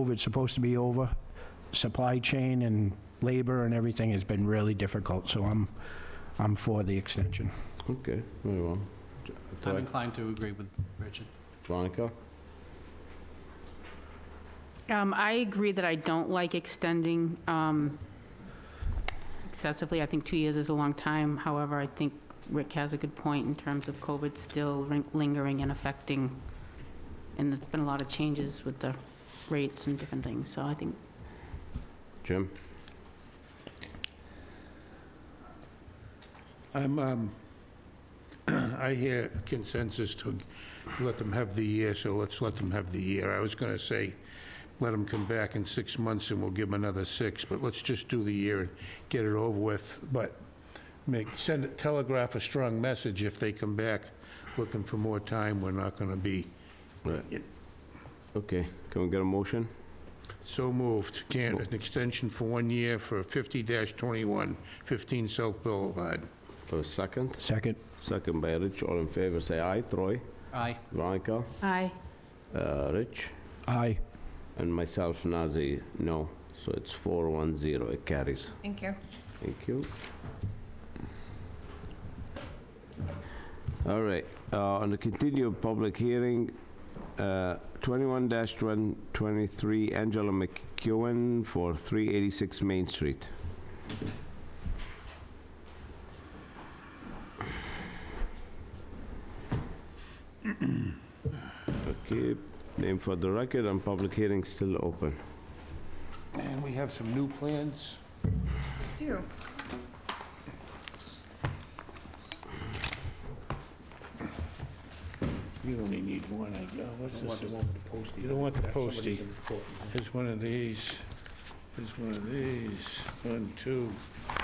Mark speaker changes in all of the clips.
Speaker 1: COVID's supposed to be over, supply chain and labor and everything has been really difficult, so I'm, I'm for the extension.
Speaker 2: Okay, very well.
Speaker 3: I'm inclined to agree with Richard.
Speaker 2: Veronica?
Speaker 4: Um, I agree that I don't like extending um, excessively. I think two years is a long time. However, I think Rick has a good point in terms of COVID still rin- lingering and affecting, and there's been a lot of changes with the rates and different things, so I think
Speaker 2: Jim?
Speaker 5: I'm, um, I hear consensus to let them have the year, so let's let them have the year. I was gonna say, let them come back in six months and we'll give them another six, but let's just do the year and get it over with, but make, send, telegraph a strong message if they come back looking for more time, we're not gonna be
Speaker 2: Right. Okay, can we get a motion?
Speaker 5: so moved. Can't, an extension for one year for 50-21, 15 South Boulevard.
Speaker 2: For a second?
Speaker 1: Second?
Speaker 2: Second by Rich, all in favor, say aye. Troy?
Speaker 3: Aye.
Speaker 2: Veronica?
Speaker 4: aye.
Speaker 2: Uh, Rich?
Speaker 1: Aye.
Speaker 2: And myself, Nazir, no. So it's 410, it carries.
Speaker 6: Thank you.
Speaker 2: Thank you. All right, uh, on the continued public hearing, uh, 21-123 Angela McEwen for 386 Main Street. Okay, name for the record and public hearing still open.
Speaker 5: And we have some new plans.
Speaker 6: Two.
Speaker 5: You only need one, I guess. What's this? You don't want the postie. Here's one of these. Here's one of these. One, two. I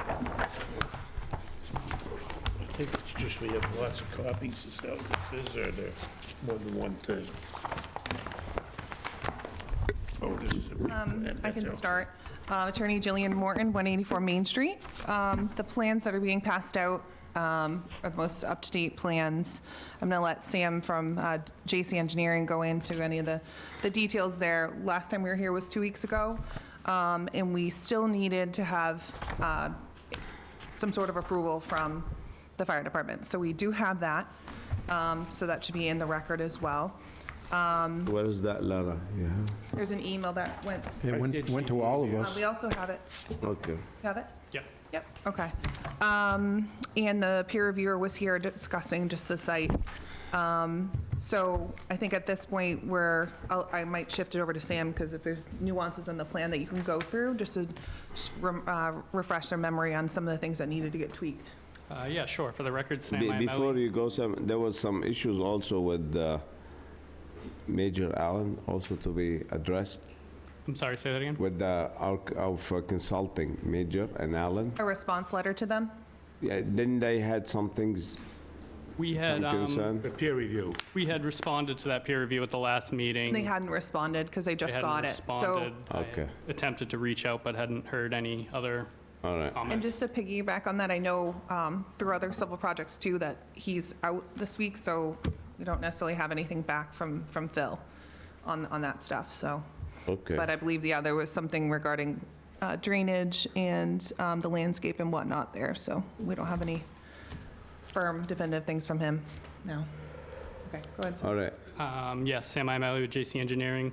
Speaker 5: think it's just we have lots of copies of stuff. This is, or there, more than one thing. Oh, this is a replan.
Speaker 6: Um, I
Speaker 5: That's
Speaker 6: can
Speaker 5: all.
Speaker 6: start. Uh, Attorney Jillian Morton, 184 Main Street. Um, The plans that are being passed out um, are the most up-to-date plans. I'm going to let Sam from uh, JC Engineering go into any of the the details there. Last time we were here was two weeks ago, um, and we still needed to have uh, some sort of approval from the fire department. So we do have that, Um, so that should be in the record as well.
Speaker 2: Where is that letter? Yeah.
Speaker 6: There's an email that went,
Speaker 1: It went, went to all of
Speaker 6: uh,
Speaker 1: us.
Speaker 6: we also have it
Speaker 2: Okay.
Speaker 6: Have it?
Speaker 3: Yep.
Speaker 6: Yep, okay. Um, And the peer reviewer was here discussing just the site. Um, So I think at this point, we're, I'll- I might shift it over to Sam, because if there's nuances in the plan that you can go through, just to rem- uh, refresh their memory on some of the things that needed to get tweaked.
Speaker 3: Uh, Yeah, sure, for the record, Sam
Speaker 2: Be- Before
Speaker 3: Iamelli.
Speaker 2: you go, Sam, there was some issues also with uh, Major Allen also to be addressed
Speaker 3: I'm sorry, say that again?
Speaker 2: with the arc of uh, consulting, Major and Allen.
Speaker 6: A response letter to them?
Speaker 2: Yeah, Then they had some things,
Speaker 3: We had,
Speaker 2: some
Speaker 3: um,
Speaker 2: concern.
Speaker 5: The peer review.
Speaker 3: we had responded to that peer review at the last meeting.
Speaker 6: They hadn't responded, because they
Speaker 3: They
Speaker 6: just
Speaker 3: hadn't
Speaker 6: got it. So,
Speaker 3: responded. I
Speaker 2: Okay.
Speaker 3: Attempted to reach out, but hadn't heard any other
Speaker 2: All right,
Speaker 6: And
Speaker 3: comments.
Speaker 6: just to piggyback on that, I know um, through other civil projects too, that he's out this week, so we don't necessarily have anything back from, from Phil on, on that stuff, so.
Speaker 2: okay.
Speaker 6: But I believe the other was something regarding uh, drainage and um, the landscape and whatnot there, so we don't have any firm definitive things from him, no. Okay, go ahead. Sam.
Speaker 2: All right,
Speaker 3: Um, Yes, Sam Iamelli with JC Engineering.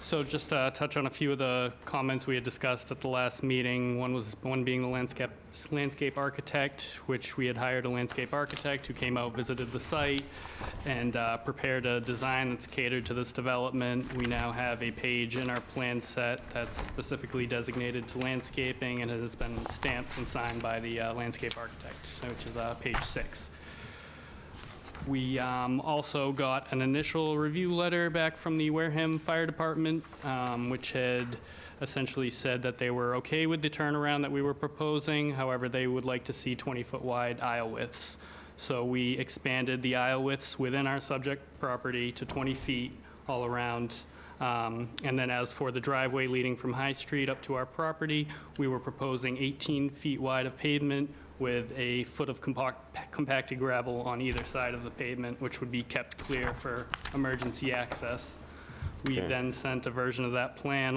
Speaker 3: So just to touch on a few of the comments we had discussed at the last meeting. One was, one being the landscape, landscape architect, which we had hired a landscape architect who came out, visited the site, and uh, prepared a design that's catered to this development. We now have a page in our plan set that's specifically designated to landscaping and has been stamped and signed by the uh, landscape architect, which is uh, page six. We um, also got an initial review letter back from the Wareham Fire Department, um, which had essentially said that they were okay with the turnaround that we were proposing. However, they would like to see 20-foot wide aisle widths. So we expanded the aisle widths within our subject property to 20 feet all around. Um, And then as for the driveway leading from High Street up to our property, we were proposing 18 feet wide of pavement with a foot of compact- compacted gravel on either side of the pavement, which would be kept clear for emergency access. We
Speaker 2: Okay.
Speaker 3: then sent a version of that plan